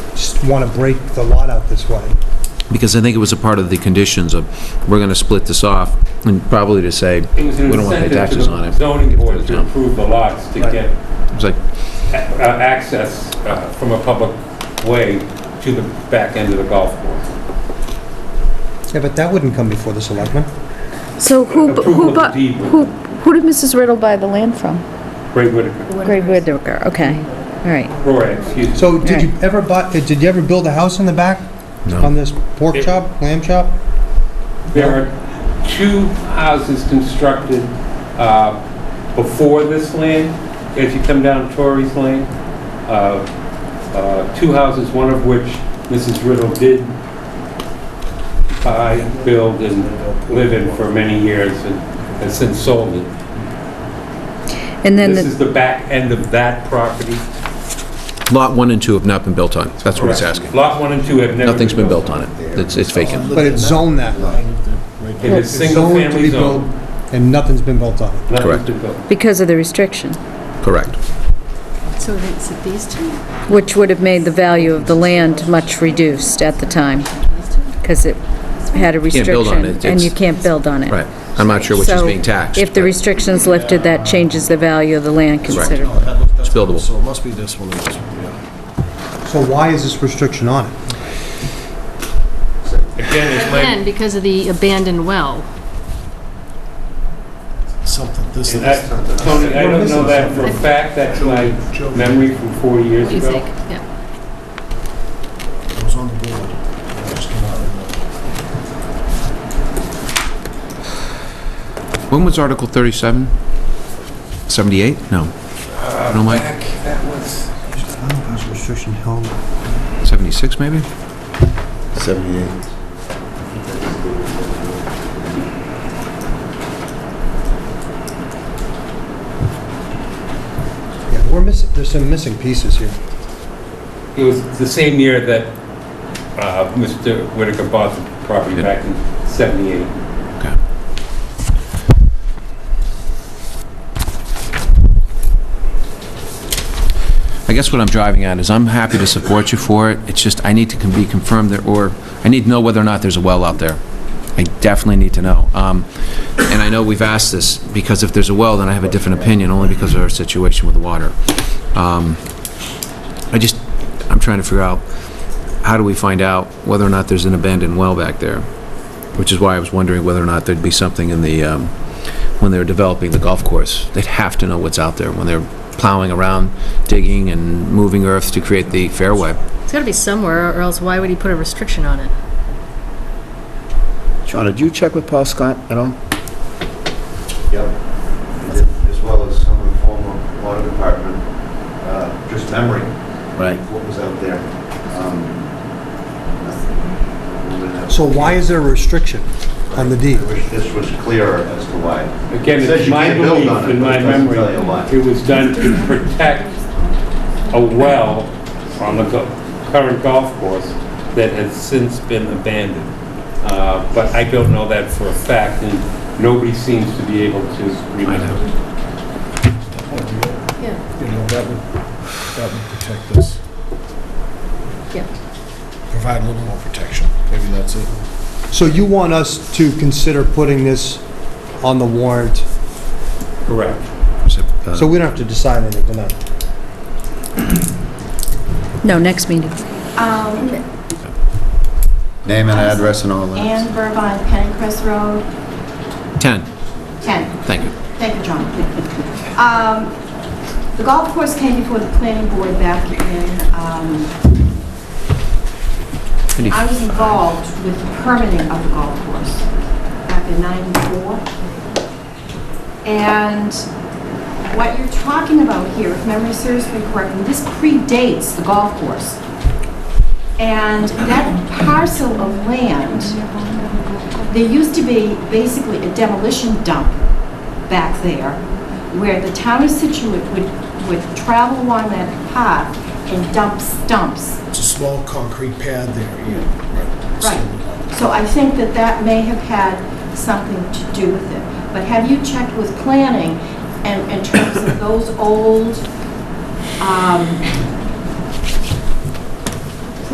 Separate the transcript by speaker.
Speaker 1: want to break the lot out this way.
Speaker 2: Because I think it was a part of the conditions of, we're going to split this off, and probably to say,
Speaker 3: It was an
Speaker 2: we don't want to pay
Speaker 3: incentive to
Speaker 2: taxes
Speaker 3: the
Speaker 2: on it.
Speaker 3: Zoning board to
Speaker 2: town.
Speaker 3: approve the lots to
Speaker 1: Right.
Speaker 3: get
Speaker 2: It's like,
Speaker 3: a- uh, access uh, from a public way to the back end of the golf course.
Speaker 1: Yeah, but that wouldn't come before the selectmen.
Speaker 4: So who, bu-
Speaker 3: Approval
Speaker 4: who,
Speaker 3: of the
Speaker 4: bu-
Speaker 3: deed.
Speaker 4: who, who did Mrs. Riddle buy the land from?
Speaker 3: Great Whitaker,
Speaker 4: Greg Whitaker, okay, all right.
Speaker 3: Roy, excuse me.
Speaker 1: So did you ever buy, uh, did you ever build a house in the back? On
Speaker 2: no.
Speaker 1: this pork
Speaker 3: It-
Speaker 1: chop, lamb chop?
Speaker 3: There are two houses constructed uh, before this land, as you come down Torrey's Lane. uh, uh, Two houses, one of which Mrs. Riddle did buy, build, and live in for many years, and has since sold it.
Speaker 4: And then,
Speaker 3: This
Speaker 4: the
Speaker 3: is the back end of that property.
Speaker 2: Lot 1 and 2 have not been built on, that's what it's asking.
Speaker 3: Lot 1 and 2 have never...
Speaker 2: Nothing's been built on it, it's it's vacant.
Speaker 1: But it's zoned that way.
Speaker 3: It is
Speaker 1: It's zoned to
Speaker 3: single-family
Speaker 1: be built,
Speaker 3: zone.
Speaker 1: And nothing's been built on it.
Speaker 2: Correct.
Speaker 3: Nothing's been built.
Speaker 4: because of the restriction,
Speaker 2: Correct.
Speaker 5: So it's these two?
Speaker 4: which would have made the value of the land much reduced at the time, because it had a
Speaker 2: can't build on
Speaker 4: restriction,
Speaker 2: it,
Speaker 4: and
Speaker 2: it's-
Speaker 4: you can't build on it.
Speaker 2: Right. I'm not sure which is
Speaker 4: So
Speaker 2: being taxed.
Speaker 4: if the
Speaker 2: but
Speaker 4: restriction's lifted, that changes the value of the land considerably.
Speaker 2: It's buildable.
Speaker 6: So it must be this one, and this one, yeah.
Speaker 1: So why is this restriction on it?
Speaker 3: Again, it's
Speaker 5: Again,
Speaker 3: my,
Speaker 5: because of the abandoned well.
Speaker 6: Something, this is.
Speaker 3: and that- Tony, I don't know that for a fact, that's my memory from four years
Speaker 5: What do you think?
Speaker 3: ago.
Speaker 5: Yeah.
Speaker 6: It was on the board. It just came out of
Speaker 2: When was Article 37? 78? No. No, Mike?
Speaker 3: That was...
Speaker 1: This restriction held.
Speaker 2: 76, maybe?
Speaker 7: 78.
Speaker 1: Yeah, we're missing, there's some missing pieces here.
Speaker 3: It was the same year that uh, Mr. Whitaker bought the property
Speaker 2: Yeah.
Speaker 3: back in 78.
Speaker 2: I guess what I'm driving at is I'm happy to support you for it. It's just I need to con- be confirmed there, or I need to know whether or not there's a well out there. I definitely need to know. Um, And I know we've asked this, because if there's a well, then I have a different opinion, only because of our situation with the water. Um, I just, I'm trying to figure out, how do we find out whether or not there's an abandoned well back there? Which is why I was wondering whether or not there'd be something in the, um, when they're developing the golf course. They'd have to know what's out there when they're plowing around, digging and moving earth to create the fairway.
Speaker 5: It's gotta be somewhere, or else why would he put a restriction on it?
Speaker 8: Sean, did you check with Paul Scott at all?
Speaker 7: Yep. I did, As well as some of the former water department, uh, just memory,
Speaker 8: Right.
Speaker 7: what was out there. Um, nothing.
Speaker 1: So why is there a restriction on the deed?
Speaker 7: I wish this was clearer as to why.
Speaker 3: Again,
Speaker 7: It says
Speaker 3: it's
Speaker 7: you
Speaker 3: my
Speaker 7: can't build
Speaker 3: belief
Speaker 7: on it,
Speaker 3: and
Speaker 7: but
Speaker 3: my
Speaker 7: it doesn't
Speaker 3: memory,
Speaker 7: tell you why.
Speaker 3: it was done to protect a well on the go- current golf course that has since been abandoned. Uh, But I don't know that for a fact, and nobody seems to be able to remember.
Speaker 5: Yeah,
Speaker 6: the- You know, that would, that would protect this,
Speaker 5: yeah.
Speaker 6: provide a little more protection. Maybe that's it.
Speaker 1: So you want us to consider putting this on the warrant,
Speaker 3: Correct.
Speaker 1: so we don't have to decide anything tonight?
Speaker 4: No, next meeting.
Speaker 9: Um,
Speaker 7: Name and address and all
Speaker 9: Ann Burbine, Pennacrest Road,
Speaker 2: 10,
Speaker 9: 10.
Speaker 2: thank you.
Speaker 9: Thank you, John. Um, The golf course came before the planning board back in, um, I was involved with the permitting of the golf course back in 94. And what you're talking about here, if memory serves me correctly, this predates the golf course. And that parcel of land, there used to be basically a demolition dump back there where the town of Situate would, would travel along that path and dump stumps
Speaker 6: It's a small concrete pad there, yeah.
Speaker 9: Right. So I think that that may have had something to do with it. But have you checked with planning and in terms of those old um,